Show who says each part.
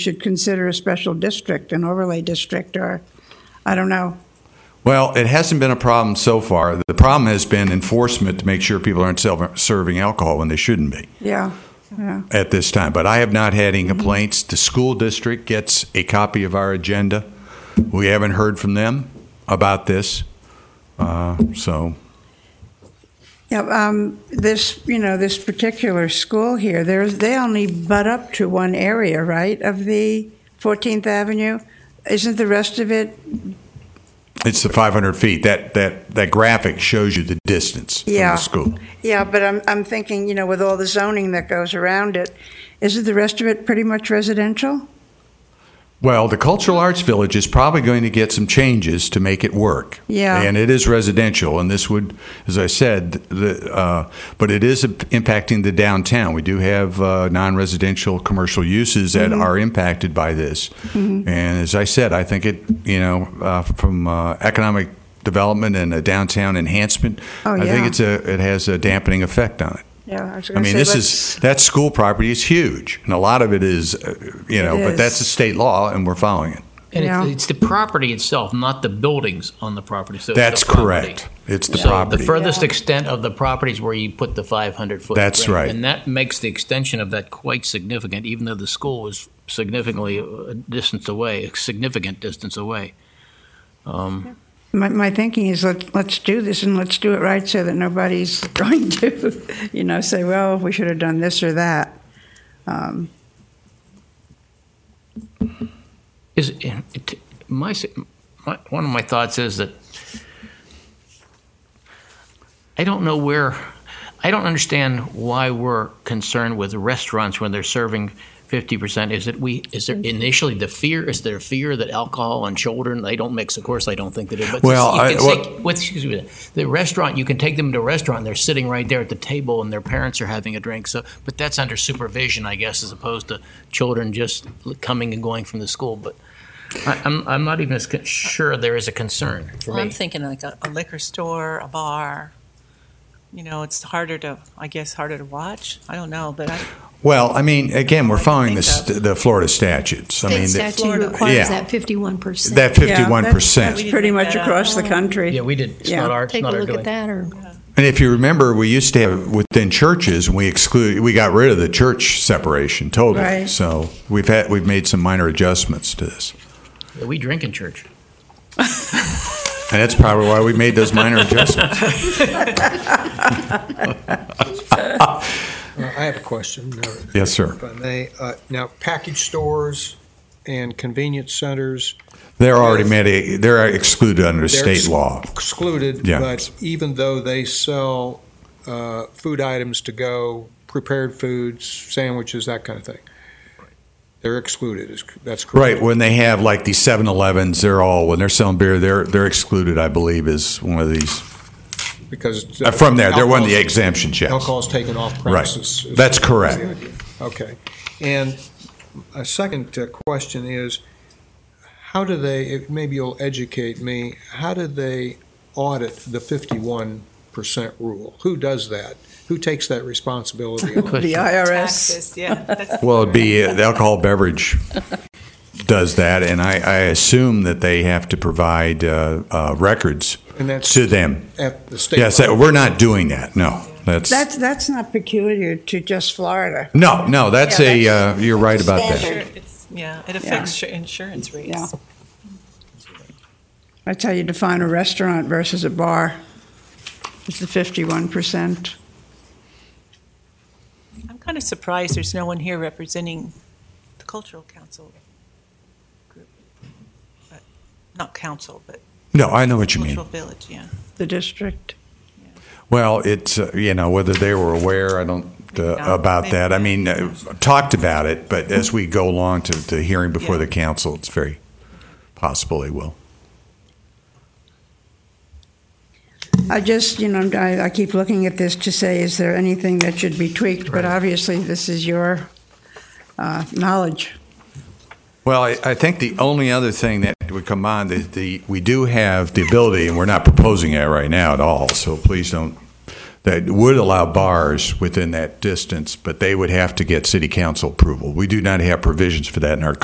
Speaker 1: should consider a special district, an overlay district, or, I don't know.
Speaker 2: Well, it hasn't been a problem so far. The problem has been enforcement to make sure people aren't self- serving alcohol when they shouldn't be
Speaker 1: Yeah, yeah.
Speaker 2: at this time. But I have not had any complaints. The school district gets a copy of our agenda. We haven't heard from them about this. Uh, so,
Speaker 1: Yeah, um, this, you know, this particular school here, there's, they only butt up to one area, right, of the 14th Avenue? Isn't the rest of it?
Speaker 2: It's the 500 feet. That that that graphic shows you the distance
Speaker 1: Yeah.
Speaker 2: from the school.
Speaker 1: Yeah, but I'm, I'm thinking, you know, with all the zoning that goes around it, isn't the rest of it pretty much residential?
Speaker 2: Well, the Cultural Arts Village is probably going to get some changes to make it work.
Speaker 1: Yeah.
Speaker 2: And it is residential, and this would, as I said, the, uh, but it is impacting the downtown. We do have uh, non-residential commercial uses that
Speaker 1: Mm-hmm.
Speaker 2: are impacted by this. And as I said, I think it, you know, uh, from uh, economic development and a downtown enhancement,
Speaker 1: Oh,
Speaker 2: I
Speaker 1: yeah.
Speaker 2: think it's a, it has a dampening effect on it.
Speaker 1: Yeah, I was
Speaker 2: I
Speaker 1: going to
Speaker 2: mean,
Speaker 1: say.
Speaker 2: this
Speaker 1: let's-
Speaker 2: is that school property is huge, and a lot of it is, uh, you know,
Speaker 1: It
Speaker 2: but
Speaker 1: is.
Speaker 2: that's a state law, and we're following it.
Speaker 3: And
Speaker 1: Yeah.
Speaker 3: it's, it's the property itself, not the buildings on the property. So it's
Speaker 2: That's
Speaker 3: the property.
Speaker 2: correct. It's the
Speaker 3: So
Speaker 2: property.
Speaker 3: the furthest
Speaker 1: Yeah.
Speaker 3: extent of the property is where you put the 500 foot.
Speaker 2: That's
Speaker 3: ring.
Speaker 2: right.
Speaker 3: And that makes the extension of that quite significant, even though the school is significantly a distance away, a significant distance away. Um,
Speaker 1: My, my thinking is let, let's do this and let's do it right so that nobody's going to, you know, say, well, we should have done this or that. Um,
Speaker 3: is it, my, my one of my thoughts is that I don't know where I don't understand why we're concerned with restaurants when they're serving fifty percent. Is it we? Is there initially the fear? Is there fear that alcohol and children they don't mix? Of course, I don't think they do. But
Speaker 2: Well,
Speaker 3: you
Speaker 2: I-
Speaker 3: can
Speaker 2: what-
Speaker 3: take- with- excuse me, the restaurant you can take them to a restaurant. and They're sitting right there at the table, and their parents are having a drink. So, but that's under supervision, I guess, as opposed to children just coming and going from the school. But I, I'm I'm not even as con- sure there is a concern for
Speaker 4: Well,
Speaker 3: me.
Speaker 4: I'm thinking like a, a liquor store, a bar. You know, it's harder to, I guess, harder to watch. I don't know, but I,
Speaker 2: Well, I mean, again, we're
Speaker 4: I
Speaker 2: following the,
Speaker 4: think so.
Speaker 2: st- the Florida statutes. I mean,
Speaker 5: State
Speaker 2: that-
Speaker 5: statute
Speaker 4: Florida.
Speaker 2: Yeah.
Speaker 5: requires that fifty-one percent.
Speaker 2: that
Speaker 1: yeah,
Speaker 2: fifty-one percent.
Speaker 1: that's Pretty much across the country.
Speaker 3: Yeah, we did. It's
Speaker 1: Yeah.
Speaker 3: not our. It's
Speaker 5: Take a
Speaker 3: not our
Speaker 5: look
Speaker 3: doing.
Speaker 5: at that, or
Speaker 2: And if you remember, we used to have within churches, and we exclude, we got rid of the church separation totally.
Speaker 1: Right.
Speaker 2: So we've had we've made some minor adjustments to this,
Speaker 3: Yeah, We drink in church.
Speaker 2: and that's probably why we made those minor adjustments.
Speaker 6: Uh, I have a question, uh,
Speaker 2: Yes, sir.
Speaker 6: if I may. Uh, Now, package stores and convenience centers
Speaker 2: They're already made. They're excluded under
Speaker 6: They're
Speaker 2: state
Speaker 6: ex-
Speaker 2: law.
Speaker 6: excluded,
Speaker 2: Yeah.
Speaker 6: but even though they sell uh, food items to go, prepared foods, sandwiches, that kind of thing, they're excluded, is- that's correct?
Speaker 2: Right when they have like these 7-Elevens, they're all when they're selling beer, they're they're excluded. I believe is one of these
Speaker 6: Because.
Speaker 2: Uh, from there. They're one of the
Speaker 6: alcohol's-
Speaker 2: exemptions. Yes,
Speaker 6: Alcohol's taken off premises. is-
Speaker 2: That's
Speaker 6: is the
Speaker 2: correct.
Speaker 6: idea. Okay. And a second uh, question is, how do they, if- maybe you'll educate me, how do they audit the 51% rule? Who does that? Who takes that responsibility? on?
Speaker 1: The IRS.
Speaker 4: taxes, yeah. That's,
Speaker 2: Well, it'd be uh, the alcohol beverage does that, and I, I assume that they have to provide uh, uh, records
Speaker 6: And that's
Speaker 2: to them.
Speaker 6: at the state.
Speaker 2: Yes, that, we're not doing that. No, that's,
Speaker 1: That's, that's not peculiar to just Florida.
Speaker 2: no, no. That's
Speaker 1: Yeah,
Speaker 2: a uh, you're right about that.
Speaker 1: standard.
Speaker 4: It's- Yeah, it affects your insurance rates.
Speaker 1: Yeah. That's how you define a restaurant versus a bar. It's the 51%.
Speaker 4: I'm kind of surprised there's no one here representing the cultural council group. But- Not council, but
Speaker 2: No, I know what you mean.
Speaker 4: cultural village, yeah.
Speaker 1: the district.
Speaker 2: Well, it's, uh, you know, whether they were aware, I don't, uh,
Speaker 4: Yeah.
Speaker 2: about that. Mm-hmm. I mean, uh, talked about it, but as we go along to the hearing before the council, it's very possible they will.
Speaker 1: I just, you know, I, I keep looking at this to say, is there anything that should be tweaked? But obviously, this is your uh, knowledge.
Speaker 2: Well, I, I think the only other thing that would come on, the, the, we do have the ability, and we're not proposing that right now at all, so please don't, that would allow bars within that distance, but they would have to get city council approval. We do not have provisions for that in our